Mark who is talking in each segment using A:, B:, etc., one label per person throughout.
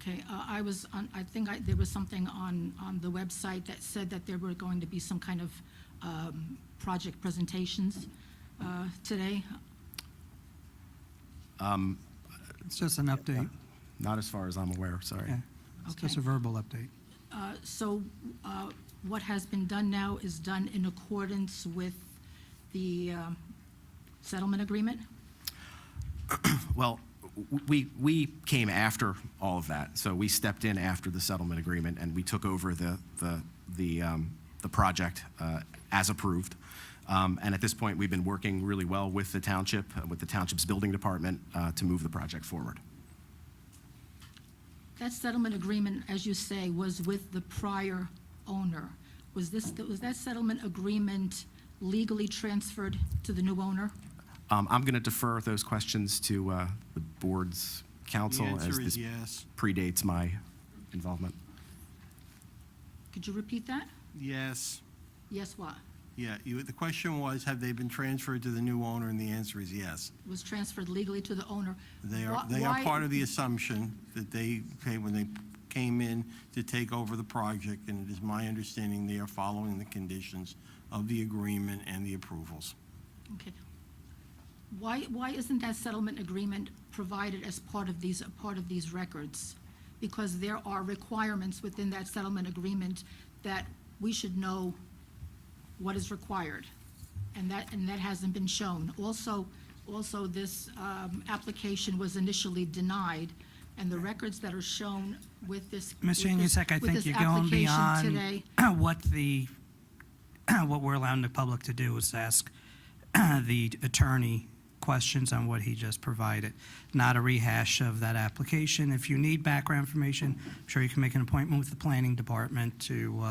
A: Okay, uh, I was on, I think I, there was something on, on the website that said that there were going to be some kind of um, project presentations uh, today.
B: It's just an update.
C: Not as far as I'm aware, sorry.
B: Yeah. It's just
A: Okay.
B: a verbal update.
A: Uh, So uh, what has been done now is done in accordance with the um, settlement agreement?
C: Well, w- we, we came after all of that, so we stepped in after the settlement agreement, and we took over the, the, the, um, the project uh, as approved. Um, And at this point, we've been working really well with the township, uh, with the township's building department, uh, to move the project forward.
A: That settlement agreement, as you say, was with the prior owner. Was this, was that settlement agreement legally transferred to the new owner?
C: Um, I'm going to defer those questions to uh, the board's counsel.
D: The
C: as
D: answer is
C: this
D: yes.
C: Predates my involvement.
A: Could you repeat that?
D: Yes,
A: Yes, what?
D: yeah, you, the question was, have they been transferred to the new owner, and the answer is yes.
A: Was transferred legally to the owner?
D: They are,
A: Wh-
D: they are
A: why-
D: part of the assumption that they, okay, when they came in to take over the project, and it is my understanding they are following the conditions of the agreement and the approvals.
A: Okay. Why, why isn't that settlement agreement provided as part of these, a part of these records? Because there are requirements within that settlement agreement that we should know what is required. And that, and that hasn't been shown. Also, also, this um, application was initially denied, and the records that are shown with this.
E: Ms.
A: with this-
E: Janusik, I
A: with
E: think
A: this
E: you're going
A: application
E: beyond
A: today-
E: what the, what we're allowing the public to do is to ask the attorney questions on what he just provided, not a rehash of that application. If you need background information, I'm sure you can make an appointment with the planning department to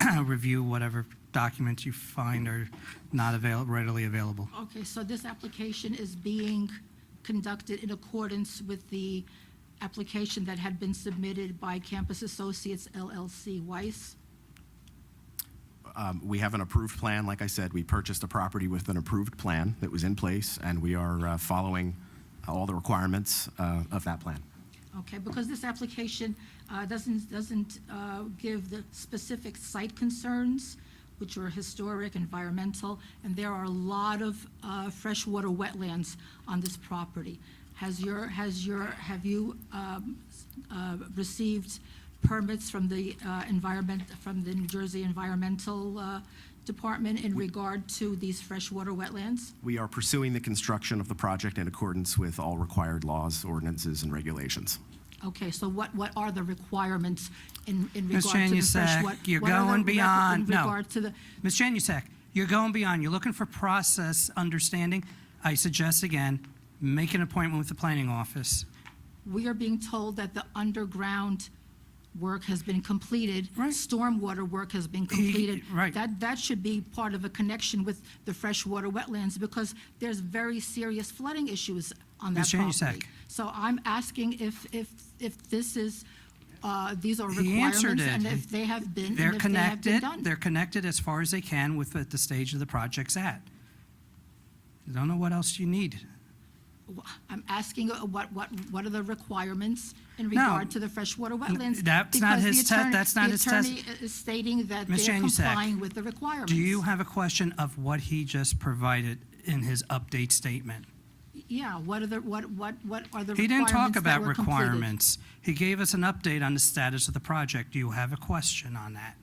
E: uh, review whatever documents you find are not avail, readily available.
A: Okay, so this application is being conducted in accordance with the application that had been submitted by Campus Associates LLC Weiss?
C: Um, We have an approved plan. Like I said, we purchased a property with an approved plan that was in place, and we are uh, following all the requirements uh, of that plan.
A: Okay, because this application uh, doesn't, doesn't uh, give the specific site concerns, which are historic, environmental, and there are a lot of uh, freshwater wetlands on this property. Has your, has your, have you um, uh, received permits from the uh, environment, from the New Jersey Environmental uh, Department in regard to these freshwater wetlands?
C: We are pursuing the construction of the project in accordance with all required laws, ordinances, and regulations.
A: Okay, so what, what are the requirements in, in
E: Ms.
A: regard to the fresh
E: Janusik,
A: what-
E: you're
A: what are the
E: going
A: requ-
E: beyond-
A: In
E: no.
A: regard to the,
E: Ms. Janusik, you're going beyond, you're looking for process understanding. I suggest again, make an appointment with the planning office.
A: we are being told that the underground work has been completed.
E: Right.
A: Stormwater work has been completed.
E: right.
A: That, that should be part of a connection with the freshwater wetlands because there's very serious flooding issues on that
E: Ms.
A: property.
E: Janusik.
A: So I'm asking if, if, if this is, uh, these are
E: He answered
A: requirements and
E: it.
A: if they have been, and
E: They're
A: if they have been
E: connected,
A: done.
E: they're connected as far as they can with what the stage of the project's at. I don't know what else you need.
A: I'm asking uh, what, what, what are the requirements in regard to the freshwater wetlands?
E: that's not
A: because the
E: his te-
A: attorney-
E: that's not his test-
A: The attorney is stating that
E: Ms.
A: they're
E: Janusik,
A: complying with the requirements.
E: Do you have a question of what he just provided in his update statement?
A: Yeah, what are the, what, what, what are the requirements
E: He didn't talk
A: that
E: about
A: were completed?
E: requirements. He gave us an update on the status of the project. Do you have a question on that?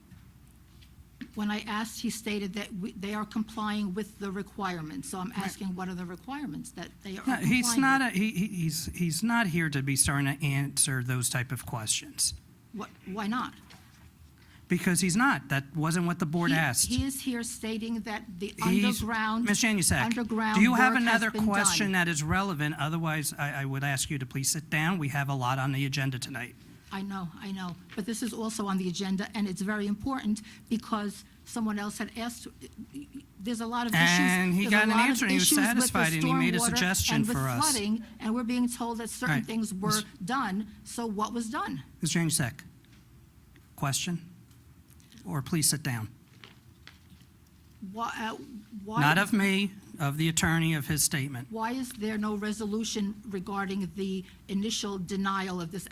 A: When I asked, he stated that we- they are complying with the requirements. So I'm asking, what are the requirements that they are
E: No,
A: complying with?
E: he's not, a- he, he- he's, he's not here to be starting to answer those type of questions,
A: What- Why not?
E: because he's not. That wasn't what the board
A: He-
E: asked.
A: He is here stating that the
E: He's-
A: underground.
E: Ms. Janusik,
A: underground
E: do you have
A: work has
E: another
A: been done.
E: question that is relevant? Otherwise, I, I would ask you to please sit down. We have a lot on the agenda tonight.
A: I know, I know, but this is also on the agenda, and it's very important because someone else had asked, there's a lot of issues.
E: And he
A: there's
E: got
A: a
E: an
A: lot of
E: answer, and he was
A: issues with the
E: satisfied, and he made a
A: stormwater
E: suggestion
A: and with
E: for us.
A: flooding, And we're being told that certain
E: Right.
A: things were done, so what was done?
E: Ms. Janusik, question? Or please sit down.
A: Why, uh, why-
E: Not of me, of the attorney, of his statement.
A: Why is there no resolution regarding the initial denial of this